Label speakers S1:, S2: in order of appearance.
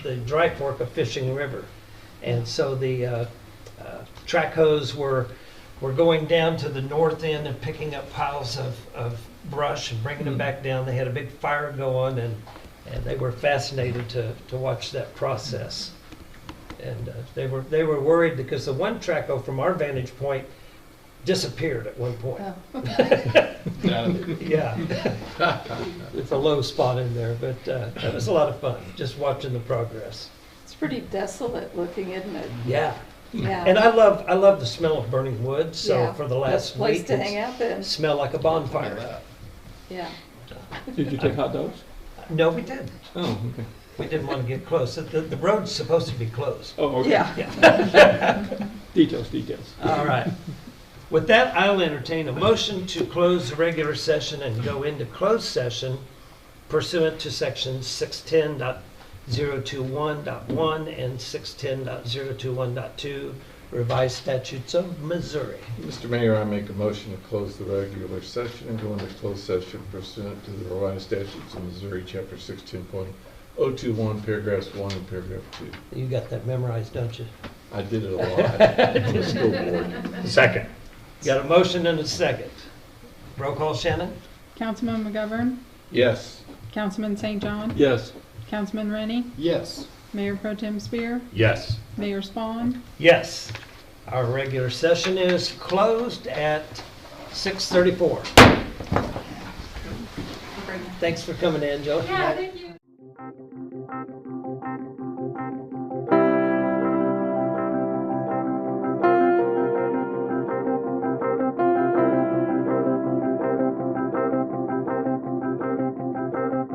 S1: the dry fork of Fishing River. And so the uh, uh, track hose were, were going down to the north end and picking up piles of, of brush and bringing them back down. They had a big fire going and, and they were fascinated to, to watch that process. And uh, they were, they were worried because the one track hole from our vantage point disappeared at one point.
S2: Oh.
S1: Yeah. It's a low spot in there, but uh, that was a lot of fun, just watching the progress.
S2: Oh, It's pretty desolate looking, isn't it?
S1: Yeah.
S2: Yeah.
S1: And I love, I love the smell of burning wood, so
S2: Yeah.
S1: for the last
S2: Best Place
S1: week,
S2: to hang
S1: it
S2: out in,
S1: smelled like a bonfire.
S2: yeah.
S3: Did you take hot dogs?
S1: No, we didn't.
S3: Oh, okay.
S1: We didn't want to get close. The, the road's supposed to be closed.
S3: Oh, okay. Details, details.
S1: All right. With that, I'll entertain a motion to close the regular session and go into closed session pursuant to section six ten and six ten revised statutes of Missouri.
S4: Mr. Mayor, I make a motion to close the regular session and go into closed session pursuant to the Revised Statutes of Missouri, Chapter 16.021, paragraphs 1 and paragraph 2.
S1: You got that memorized, don't you?
S4: I did it a lot on the school board.
S1: Second. Got a motion and a second. Roll call, Shannon?
S5: Councilman McGovern,
S4: Yes.
S5: Councilman St. John,
S3: Yes.
S5: Councilman Rennie,
S4: Yes.
S5: Mayor Pro Tem Spear,
S4: Yes.
S5: Mayor Spawn.
S1: Yes. Our regular session is closed at 6:34. Thanks for coming in, Joe.
S6: Yeah, thank you.